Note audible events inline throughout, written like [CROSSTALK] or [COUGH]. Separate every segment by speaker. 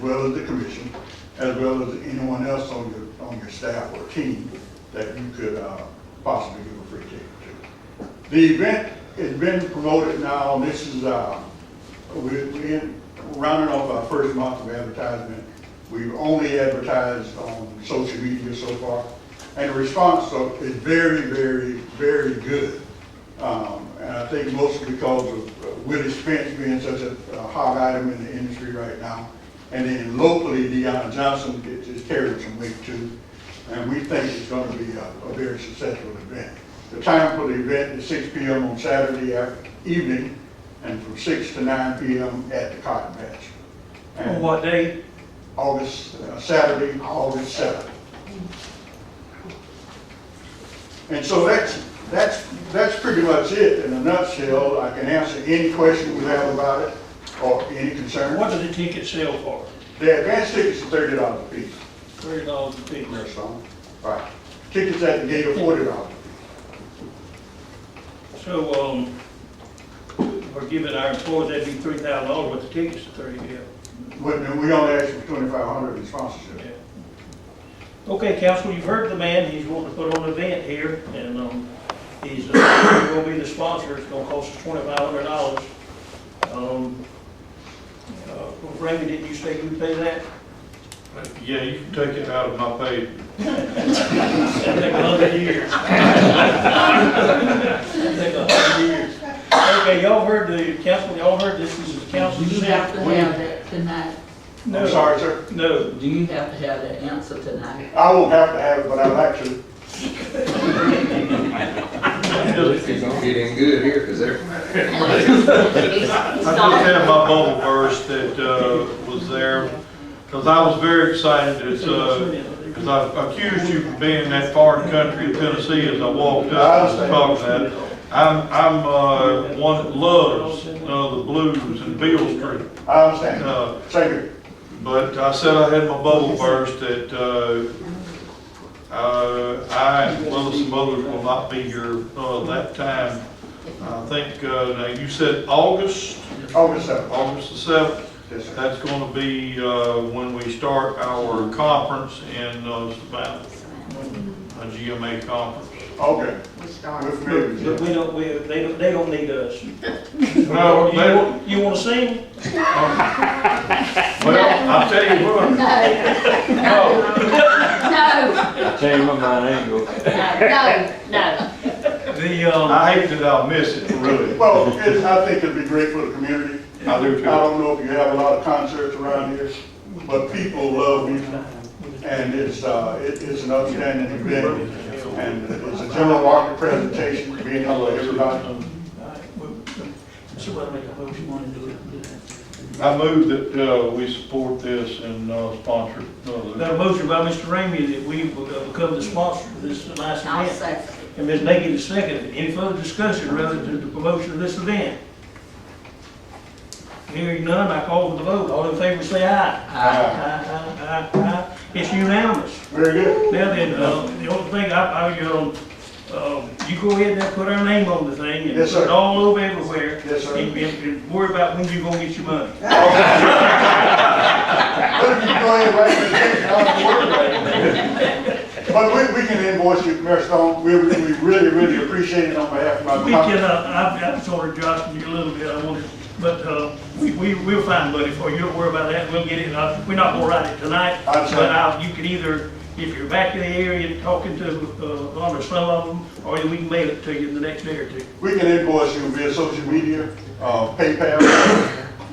Speaker 1: as well as the commission, as well as anyone else on your, on your staff or team that you could uh, possibly give a free ticket to. The event has been promoted now, this is, uh, we're we're in- rounding off our first month of advertisement. We've only advertised on social media so far, and the response so- is very, very, very good. Um, And I think mostly because of uh, Willie Spence being such a a hot item in the industry right now. And then locally, Deanna Johnson is- is carrying some weight too. And we think it's gonna be a, a very successful event. The time for the event is six P M on Saturday af- evening and from six to nine P M at the Cotton Patch.
Speaker 2: On
Speaker 1: And
Speaker 2: what day?
Speaker 1: August, uh, Saturday, August seventh. And so that's, that's, that's pretty much it in a nutshell. I can answer any question we have about it or any concern.
Speaker 2: What do the tickets sell for?
Speaker 1: The advance tickets are thirty dollars a piece.
Speaker 2: Thirty dollars a piece.
Speaker 1: Mayor Stone. Right. Tickets at the gate are forty dollars.
Speaker 2: So, um, we're giving our employees, that'd be three thousand dollars worth of tickets to thirty, yeah.
Speaker 1: But then we only ask for twenty-five hundred in sponsorship.
Speaker 2: yeah. Okay, council, you've heard the man, he's wanting to put on an event here, and, um, he's, uh, gonna be the sponsor, it's gonna cost us twenty-five hundred dollars. Um, uh, Randy, didn't you say you pay that?
Speaker 3: Yeah, you can take it out of my pay.
Speaker 2: Take a hundred years. Take a hundred years. Okay, y'all heard the council, y'all heard this, this is the council.
Speaker 4: You have to have that tonight.
Speaker 1: I'm sorry, sir.
Speaker 2: No,
Speaker 4: Do you have to have that answer tonight?
Speaker 1: I won't have to have it, but I'd like to.
Speaker 5: It's gonna get in good here, cause they're
Speaker 3: I just had my bubble burst that uh, was there, because I was very excited, it's, uh, because I accused you of being in that foreign country of Tennessee as I walked up and talked about it. I'm, I'm uh, one that loves uh, the blues and Beale Street,
Speaker 1: I understand.
Speaker 3: uh,
Speaker 1: Thank you.
Speaker 3: but I said I had my bubble burst that uh, uh, I, as well as some others, will not be here uh, that time. I think, uh, now you said August?
Speaker 1: August seventh.
Speaker 3: August the seventh,
Speaker 1: Yes, sir.
Speaker 3: that's gonna be, uh, when we start our conference in, uh, Savannah, a GMA conference.
Speaker 1: Okay. We're familiar with
Speaker 2: but
Speaker 1: you.
Speaker 2: we don't, we, they don't, they don't need us.
Speaker 3: No,
Speaker 2: You
Speaker 3: they-
Speaker 2: want- You wanna sing?
Speaker 3: Well, I'll tell you what,
Speaker 6: No,
Speaker 7: Change my mind, I ain't go.
Speaker 6: no, no.
Speaker 2: The, um,
Speaker 3: I hate that I'll miss it, really.
Speaker 1: Well, it's, I think it'd be great for the community.
Speaker 3: I do too.
Speaker 1: I don't know if you have a lot of concerts around here, but people love music. And it's, uh, it is an outstanding event. And it's a general market presentation being held by everybody.
Speaker 2: somebody make a motion on it.
Speaker 3: I move that, uh, we support this and, uh, sponsor
Speaker 2: Got a
Speaker 3: another.
Speaker 2: motion by Mr. Ramey that we become the sponsor of this last
Speaker 6: I'll
Speaker 2: event.
Speaker 6: say,
Speaker 2: And Ms. Nagy, the second. Any further discussion relative to the promotion of this event? Hearing none, I call for the vote. All in favor, say aye. Aye. Aye, aye, aye, aye. It's unanimous.
Speaker 1: Very good. [LAUGHS]
Speaker 2: Now then, uh, the only thing, I, I, um, uh, you go ahead and put our name on the thing and
Speaker 1: Yes,
Speaker 2: put
Speaker 1: sir.
Speaker 2: it all over everywhere.
Speaker 1: Yes, sir.
Speaker 2: And, and- and worry about when you gonna get your money.
Speaker 1: But if you go ahead and write the check, I don't worry about it. But we, we can invoice you, Mayor Stone, we, we really, really appreciate it on behalf of my
Speaker 2: We
Speaker 1: company.
Speaker 2: can, uh, I've, I've sort of jostled you a little bit, I wanted, but, uh, we, we, we'll find money for you, don't worry about that, we'll get it, uh, we're not gonna write it tonight.
Speaker 1: I'm sorry.
Speaker 2: But I'll, you can either, if you're back in the area and talking to, uh, one or some of them, or we can mail it to you in the next day or two.
Speaker 1: We can invoice you via social media, uh, PayPal,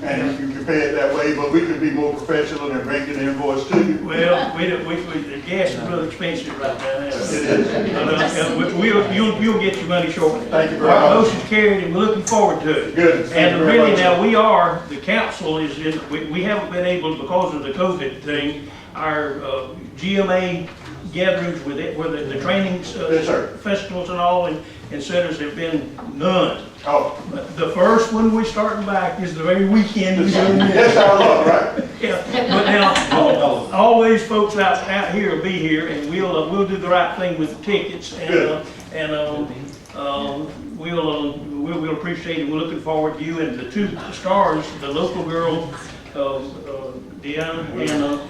Speaker 1: and you can pay it that way, but we could be more professional and bring an invoice to you.
Speaker 2: Well, we, don't- we, we, the gas is real expensive right now.
Speaker 1: It is.
Speaker 2: But, uh, we- We'll, you'll, you'll get your money shortly.
Speaker 1: Thank you very
Speaker 2: Our
Speaker 1: much.
Speaker 2: motion's carried and we're looking forward to it.
Speaker 1: Good. Thank you
Speaker 2: And
Speaker 1: very
Speaker 2: really
Speaker 1: much.
Speaker 2: now, we are, the council is, is- we, we haven't been able, because of the COVID thing, our uh, GMA gatherings with it, where the, the trainings. uh,
Speaker 1: Yes, sir.
Speaker 2: Festivals and all and, and centers have been none.
Speaker 1: Oh,
Speaker 2: But The first one we starting back is the very weekend. we're doing this.
Speaker 1: that's our love, right?
Speaker 2: Yeah, but now, all, all these folks out, out here will be here, and we'll, uh, we'll do the right thing with the tickets, and, uh, and, um, um, we'll, uh, we'll, we'll appreciate it, we're looking forward to you and the two stars, the local girl, uh, uh, Deanna, and, uh,